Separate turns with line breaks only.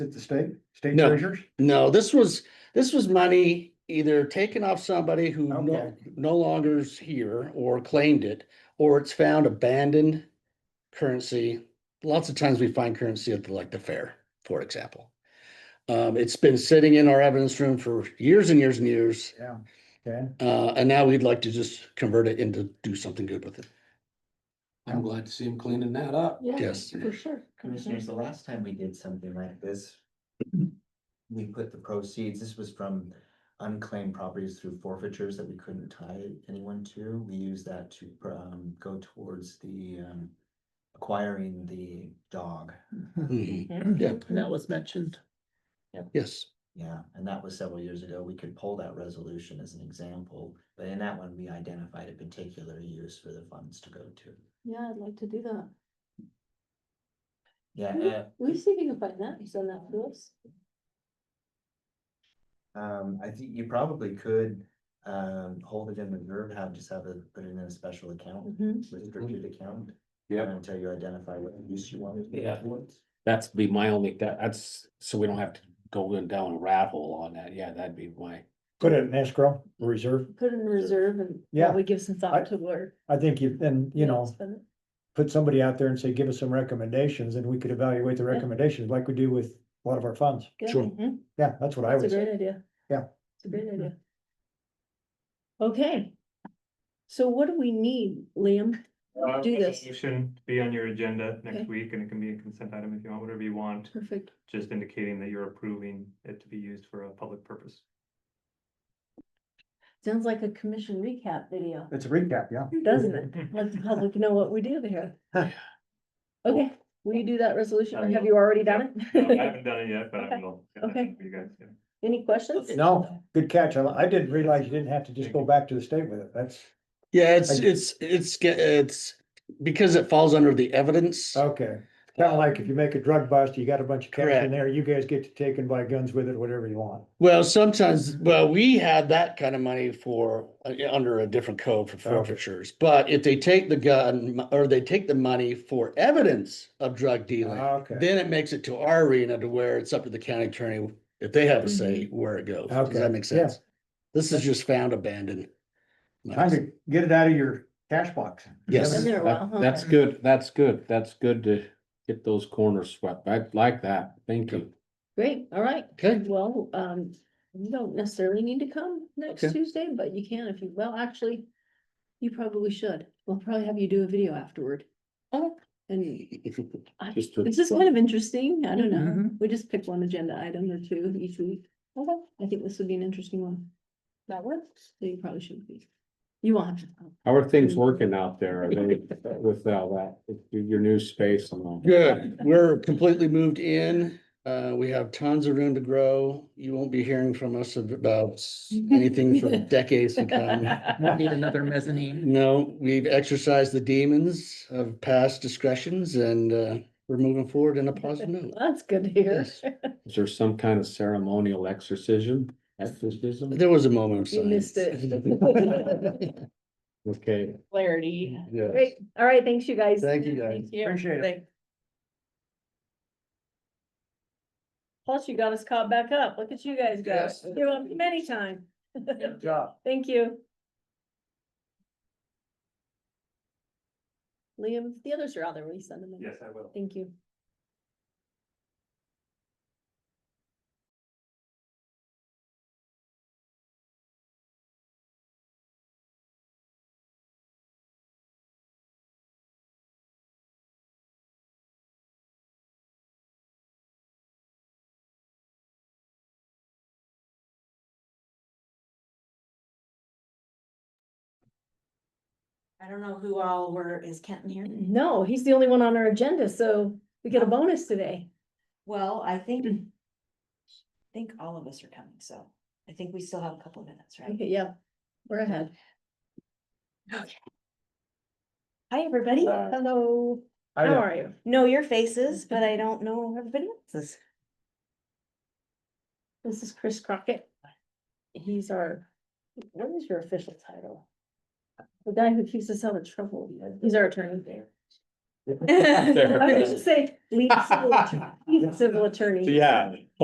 At the state, state
No.
treasures?
No, this was, this was money either taken off somebody who no,
Okay.
no longer's here or claimed it, or it's found abandoned currency. Lots of times we find currency at the, like the fair, for example. Um, it's been sitting in our evidence room for years and years and years,
Yeah. Okay,
uh, and now we'd like to just convert it into do something good with it.
I'm glad to see him cleaning that up.
Yes.
For sure.
Commissioners, the last time we did something like this. We put the proceeds, this was from unclaimed properties through forfeitures that we couldn't tie anyone to. We used that to um go towards the um. Acquiring the dog,
Mhm. Yeah.
That was mentioned.
Yes,
yeah, and that was several years ago. We could pull that resolution as an example. But in that one, we identified a particular use for the funds to go to.
Yeah, I'd like to do that.
Yeah, uh,
We see if we can find that, you send that to us.
Um, I think you probably could, um, hold it in reserve, have, just have it put it in a special account,
Mhm.
restricted account.
Yep.
Until you identify what use you want. it to be
Yeah.
towards.
That's be my only, that, that's, so we don't have to go in down a rat hole on that. Yeah, that'd be my.
put it in escrow, reserve.
Put it in reserve and
Yeah.
that would give some
I-
thought to where.
I think you, and you know,
spend it.
put somebody out there and say, give us some recommendations and we could evaluate the recommendations like we do with a lot of our funds.
Yeah.
Sure.
Mhm.
Yeah, that's what I
That's a
would say.
great idea.
Yeah.
It's a great idea. Okay. So what do we need, Liam?
Uh,
do this.
Resolution to be on your agenda
Okay.
next week and it can be a consent item if you want, whatever you want,
Perfect.
just indicating that you're approving it to be used for a public purpose.
Sounds like a commission recap video,
It's a recap, yeah.
doesn't it? Let the public know what we did here. Okay, will you do that resolution or have you already done
No, I
it?
haven't done it yet, but I
Okay.
will. get that
Okay.
For you guys, yeah.
Any questions?
No, good catch. I, I didn't realize you didn't have to just go back to the state with it. That's,
yeah, it's,
I-
it's, it's, ge- it's, because it falls under the evidence.
okay. Kind
uh,
of like if you make a drug bust, you got a bunch of cash
Correct.
in there, you guys get to take and buy guns with it, whatever you want.
Well, sometimes, well, we had that kind of money for, uh, under a different code for forfeitures, but if they take the gun or they take the money for evidence of drug dealing,
Ah, Okay,
then it makes it to our arena to where it's up to the county attorney, if they have a say where it goes. Does
Mm-hmm. Okay,
that make
yeah.
sense? This is just found abandoned.
time
monies.
to get it out of your cash box.
Yes.
Been there a while, huh?
That- That's good, that's good, that's good to get those corners swept. I like that, thank you.
Great, all right.
Okay.
Well, um, you don't necessarily need to come next
Okay.
Tuesday, but you can if you, well, actually, you probably should. We'll probably have you do a video afterward.
Oh.
And I-
Just to-
this is kind of interesting. I don't know. We just pick one agenda item or two each week. Okay. I think this would be an interesting one. That works. So you probably shouldn't be. You won't have to.
How are things working out there? Are they with all that, with your new space and all?
Good. We're completely moved in. Uh, we have tons of room to grow. You won't be hearing from us about anything for decades to come.
Need another mezzanine.
No, we've exercised the demons of past discretions and uh, we're moving forward in a positive note.
That's good to hear.
Yes.
Is there some kind of ceremonial exorcism, exorcism?
There was a moment of
You
silence.
missed it.
Okay.
Clarity.
Yeah.
Great. All right. Thanks, you guys.
Thank you, guys.
Thank you.
Appreciate it.
Thanks. Plus, you got us caught back up. Look at you guys go.
Yes.
You're on many time.
Good job.
Thank you. Liam, the others are out there. Will you send them? in?
Yes, I will.
Thank you.
I don't know who all were, is Kenton here?
No, he's the only one on our agenda, so we get a bonus today.
Well, I think, I think all of us are coming, so I think we still have a couple of minutes, right?
Okay, yeah. We're ahead.
Hi, everybody.
Uh,
Hello.
I
How
know.
are you?
Know your faces, but I don't know everybody else's.
This is Chris Crockett. He's our, what is your official title? The guy who keeps us out of trouble. He's our attorney. I was gonna say, Lead civil attorney. Lead civil attorney.
Yeah.